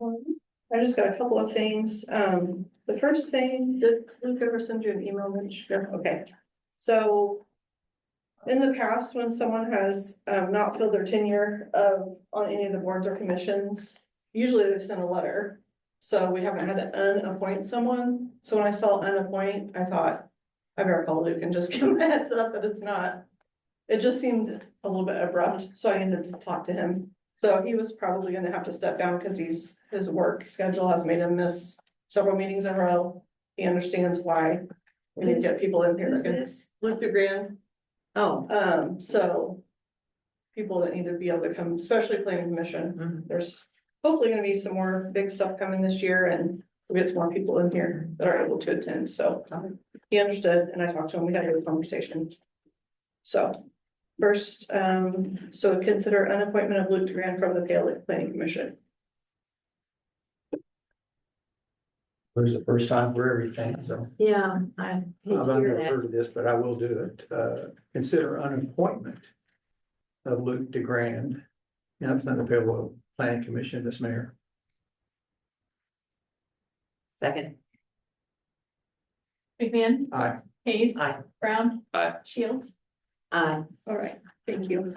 I just got a couple of things. Um, the first thing, did Luke ever send you an email? Mitch? No? Okay, so. In the past, when someone has um not filled their tenure of on any of the boards or commissions, usually they've sent a letter. So we haven't had to unappoint someone. So when I saw unappoint, I thought, I better call Luke and just give him a heads up that it's not. It just seemed a little bit abrupt, so I ended to talk to him. So he was probably gonna have to step down because he's, his work schedule has made him miss several meetings in a row. He understands why. We need to get people in here. Who's that can- this? Luther Grand, Oh, um, so. People that need to be able to come, especially planning commission, Mhm. there's hopefully gonna be some more big stuff coming this year and. We get some more people in here that are able to attend, so Got it. he understood and I talked to him, we had a good conversation. So, first, um, so consider an appointment of Luke Grant from the Pale Lick Planning Commission. There's a first time for everything, so yeah, I hate I've to hear never that. heard of this, but I will do it. Uh, consider an appointment of Luke DeGrand. Now, it's not the Payroll Planning Commission, this mayor. Second, McMahon, Aye. Hayes. Aye. Brown. Aye. Shields. I, All right, thank you.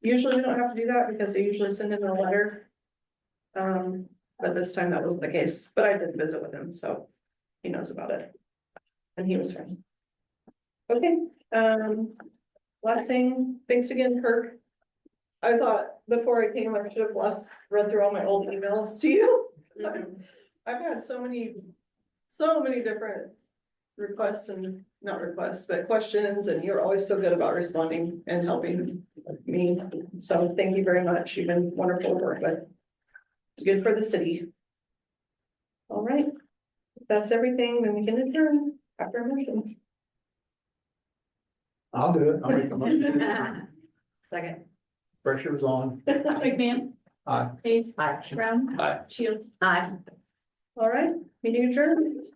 Usually we don't have to do that because they usually send in a letter. Um, but this time that wasn't the case, but I did visit with him, so he knows about it. And he was fine. Okay, um, last thing, thanks again, Kirk. I thought before I came, I should have last read through all my old emails to you. Sorry. I've had so many, so many different requests and not requests, but questions, and you're always so good about responding and helping me. So thank you very much. You've been wonderful to work with. It's Good for the city. All right. If That's everything. Then we can adjourn after a motion. I'll do it. I'll make the motion. second, Pressure was on. McMahon. Aye. Hayes. I, Brown. Aye. Shields. I. All right, meeting adjourned.